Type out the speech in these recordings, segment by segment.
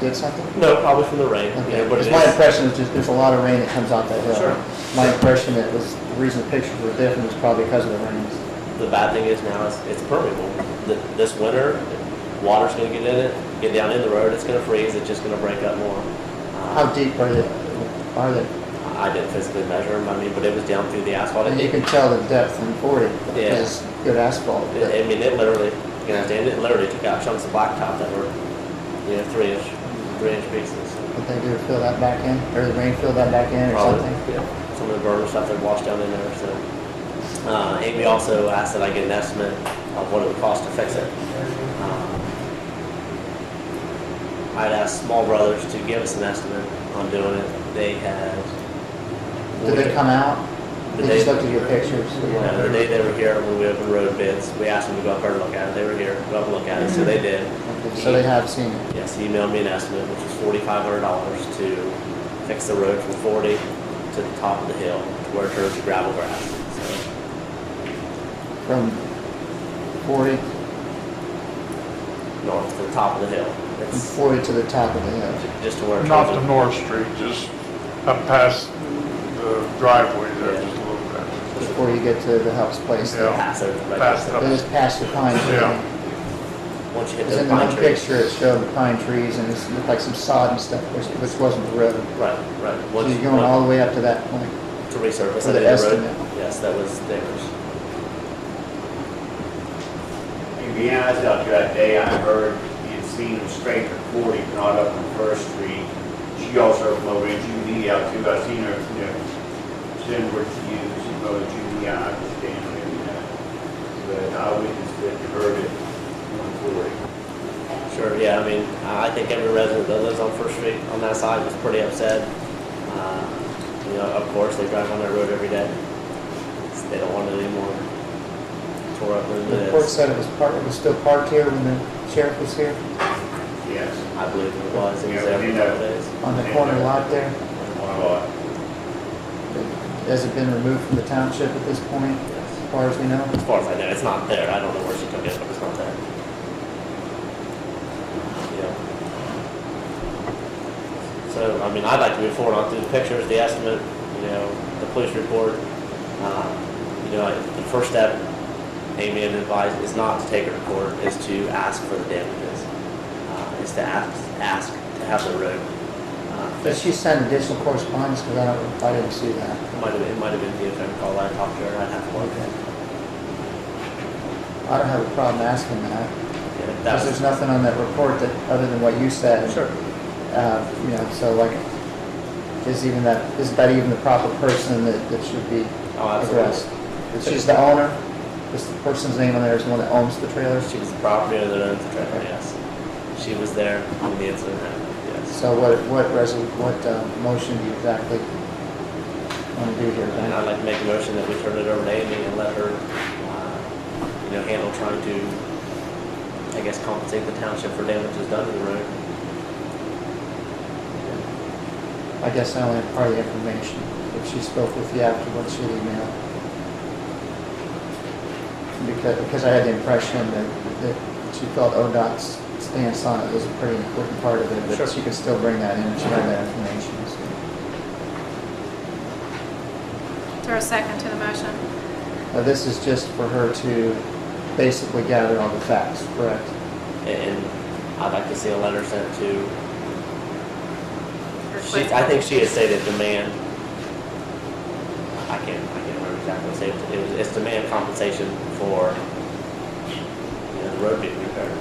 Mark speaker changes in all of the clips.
Speaker 1: did something?
Speaker 2: No, probably from the rain, you
Speaker 1: Okay,
Speaker 2: know, but it
Speaker 1: Because my
Speaker 2: is.
Speaker 1: impression is just, there's a lot of rain that comes out that hill.
Speaker 2: Sure.
Speaker 1: My impression that was, the reason the pictures were different was probably because of the rains.
Speaker 2: The bad thing is now it's, it's permeable. Th- This winter, water's gonna get in it, get down in the road, it's gonna freeze, it's just gonna break up more.
Speaker 1: How
Speaker 2: Uh,
Speaker 1: deep are they, are they?
Speaker 2: I didn't physically measure them, I mean, but it was down through the asphalt.
Speaker 1: And you
Speaker 2: It-
Speaker 1: can tell the depth in forty
Speaker 2: Yeah.
Speaker 1: is good asphalt. but-
Speaker 2: I mean, it literally, you understand, it literally took out chunks of blacktop that were, you know, three inch, three inch pieces.
Speaker 1: Did they do fill that back in, or the rain fill that back in or
Speaker 2: Probably,
Speaker 1: something?
Speaker 2: yeah, some of the burner stuff that washed down in there, so. Uh, Amy also asked that I get an estimate of what it would cost to fix it. Um, I'd asked Small Brothers to give us an estimate on doing it. They had.
Speaker 1: Did they come out?
Speaker 2: The
Speaker 1: They just
Speaker 2: day-
Speaker 1: looked at your pictures? or what?
Speaker 2: No, the day they were here, when we opened road bids, we asked them to go up there and look at it. They were here, go up and look at it, so they did.
Speaker 1: Okay, So they have seen it.
Speaker 2: Yes, he emailed me an estimate, which was forty-five hundred dollars to fix the road from forty to the top of the hill to where it turns to gravel grass. So,
Speaker 1: From forty,
Speaker 2: North to the top of the hill.
Speaker 1: from
Speaker 2: It's
Speaker 1: forty to the top of the hill.
Speaker 2: ju- just to where it
Speaker 3: Not to
Speaker 2: turns.
Speaker 3: North Street, just up past the driveway there, just a little bit.
Speaker 1: before you get to the house place.
Speaker 3: Yeah.
Speaker 2: Pass over. right?
Speaker 3: Past the-
Speaker 1: It was past the pine
Speaker 3: Yeah.
Speaker 1: tree.
Speaker 2: Once you hit
Speaker 1: Because
Speaker 2: the
Speaker 1: in the
Speaker 2: pine
Speaker 1: one
Speaker 2: trees.
Speaker 1: picture, it showed the pine trees and it looked like some sod and stuff, which, which wasn't the road.
Speaker 2: Right, right.
Speaker 1: So
Speaker 2: Once
Speaker 1: you're
Speaker 2: you-
Speaker 1: going
Speaker 2: once-
Speaker 1: all the way up to that point.
Speaker 2: To resurface.
Speaker 1: For
Speaker 2: I
Speaker 1: the
Speaker 2: did road.
Speaker 1: estimate.
Speaker 2: Yes, that was theirs.
Speaker 4: To be honest, out there that day, I heard you'd seen them straight to 40, not up on First Street. She also heard over in Judy out too. I seen her, you know, send word to you, she wrote Judy, I understand and that. But I witnessed it, heard it on 40.
Speaker 2: Sure, yeah, I mean, I I think every resident that lives on First Street on that side was pretty upset. Uh, You know, of course, they drive on that road every day. It's- They don't want it anymore. Tore up than
Speaker 1: The
Speaker 2: it
Speaker 1: report
Speaker 2: is.
Speaker 1: said it was parked, it was still parked here when the sheriff was here
Speaker 4: Yes,
Speaker 2: I believe it was, it was
Speaker 4: Yeah, we
Speaker 2: every
Speaker 4: need
Speaker 2: couple
Speaker 4: to-
Speaker 2: days.
Speaker 1: on the corner lot there.
Speaker 4: one lot.
Speaker 1: Has it been removed from the township at this point,
Speaker 2: Yes.
Speaker 1: as far as we know?
Speaker 2: As far as I know, it's not there. I don't know where she took it, but it's not there. Yeah. So, I mean, I'd like to move forward on through the pictures, the estimate, you know, the police report. Um, You know, the first step, Amy had advised, is not to take her to court, is to ask for the damages. Uh, Is to ask, ask to have the road. uh,
Speaker 1: But she sent additional correspondence, because I don't, I didn't see that.
Speaker 2: It might have, it might have been the attorney call I talked to her, I'd have to look at it.
Speaker 1: I don't have a problem asking that,
Speaker 2: Yeah, that
Speaker 1: because there's
Speaker 2: was-
Speaker 1: nothing on that report that, other than what you said.
Speaker 2: Sure.
Speaker 1: uh, you know, so like, is even that, is that even the proper person that, that should be
Speaker 2: Oh, absolutely.
Speaker 1: addressed? That she's the owner, this person's name on there is the one that owns the trailer,
Speaker 2: She was the property owner that owns the trailer, yes. She was there when the incident happened, yes.
Speaker 1: so what, what resol, what, uh, motion do you exactly want to do here,
Speaker 2: And I'd
Speaker 1: Ben?
Speaker 2: like to make a motion that we turn it over to Amy and let her, uh, you know, handle trying to, I guess, compensate the township for damages done to the road.
Speaker 1: I guess I only have part of the information, if she spoke with you afterwards, she emailed. Because, because I had the impression that, that she felt ODOT's stance on it was a pretty important part of it,
Speaker 2: Sure.
Speaker 1: but she could still bring that in, if she had that information, so.
Speaker 5: Is there a second to the motion?
Speaker 1: Now, this is just for her to basically gather all the facts, correct?
Speaker 2: And- And I'd like to see a letter sent to, she,
Speaker 5: Request-
Speaker 2: I think she had stated demand. I can't, I can't remember exactly what it said. It was, it's demand compensation for, you know, the road being repaired.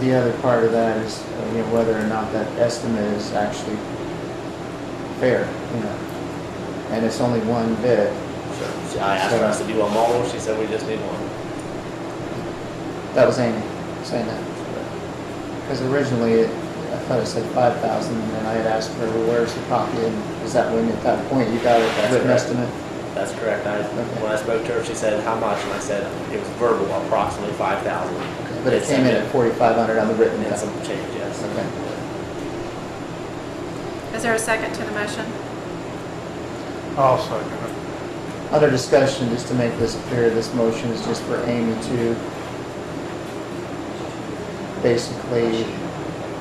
Speaker 1: The other part of that is, uh, you know, whether or not that estimate is actually fair, you know? And it's only one bid.
Speaker 2: So she- I asked her, I said, do you want more? She said, we just need one.
Speaker 1: That was Amy saying that. Because originally, it- I thought it said five thousand, and then I had asked her, well, where's the copy? And is that when, at that point, you got a
Speaker 2: That's
Speaker 1: written
Speaker 2: correct.
Speaker 1: estimate?
Speaker 2: That's correct. I, when I spoke to her, she said, how much? And I said, it was verbal, approximately five thousand.
Speaker 1: But it came in at forty-five hundred on the written.
Speaker 2: And some
Speaker 1: estimate.
Speaker 2: change, yes.
Speaker 1: Okay.
Speaker 5: Is there a second to the motion?
Speaker 3: I'll second it.
Speaker 1: Under discussion, just to make this clear, this motion is just for Amy to basically